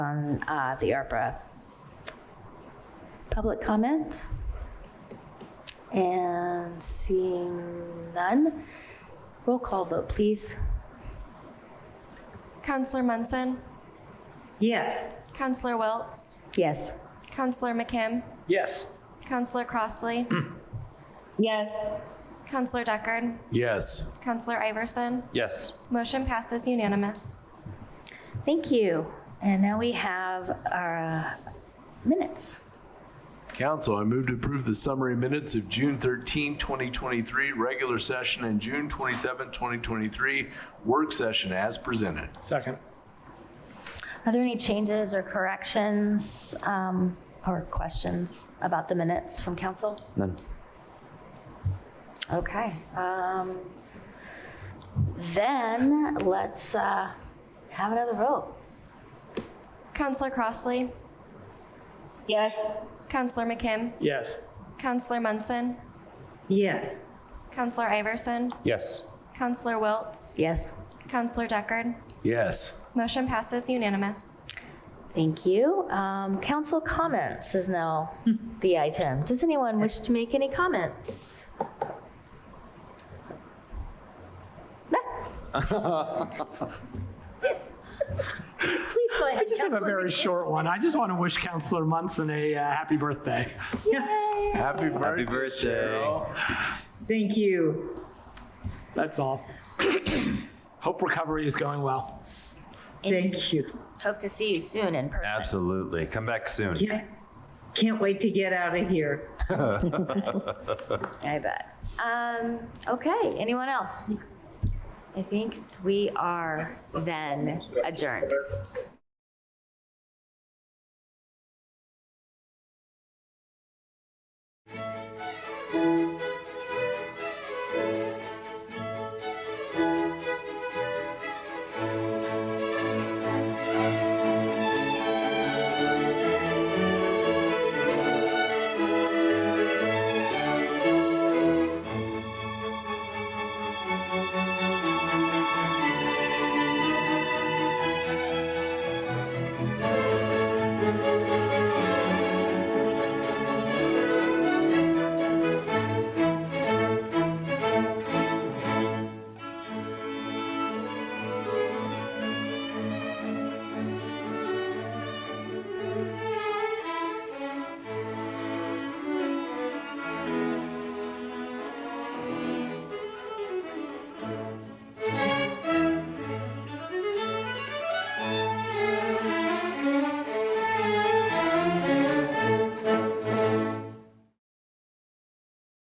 on uh, the ARPA. Public comment? And seeing none, roll call vote, please. Counselor Munson, Yes. Counselor Wiltz, Yes. Counselor McKim, Yes. Counselor Crossley, Yes. Counselor Deckard, Yes. Counselor Iverson. Yes. Motion passes unanimous. Thank you. And now we have our uh, minutes. Council, I move to approve the summary minutes of June 13, 2023, regular session, and June 27, 2023, work session as presented. Second. Are there any changes or corrections um, or questions about the minutes from council? None. Okay. um, Then let's uh, have another vote. Counselor Crossley, Yes. Counselor McKim, Yes. Counselor Munson, Yes. Counselor Iverson, Yes. Counselor Wiltz, Yes. Counselor Deckard. Yes. Motion passes unanimous. Thank you. Um, Council comments is now Hmm. the item. Does anyone wish to make any comments? No. Please go ahead. I just have a Councilor very Mc- short one. I just want to wish Counselor Munson a uh, happy birthday. Happy birthday, Cheryl. Thank you. That's all. Hope recovery is going well. Thank you. Hope to see you soon in person. Absolutely. Come back soon. Can't, can't wait to get out of here. I bet. Um, okay, anyone else? I think we are then adjourned.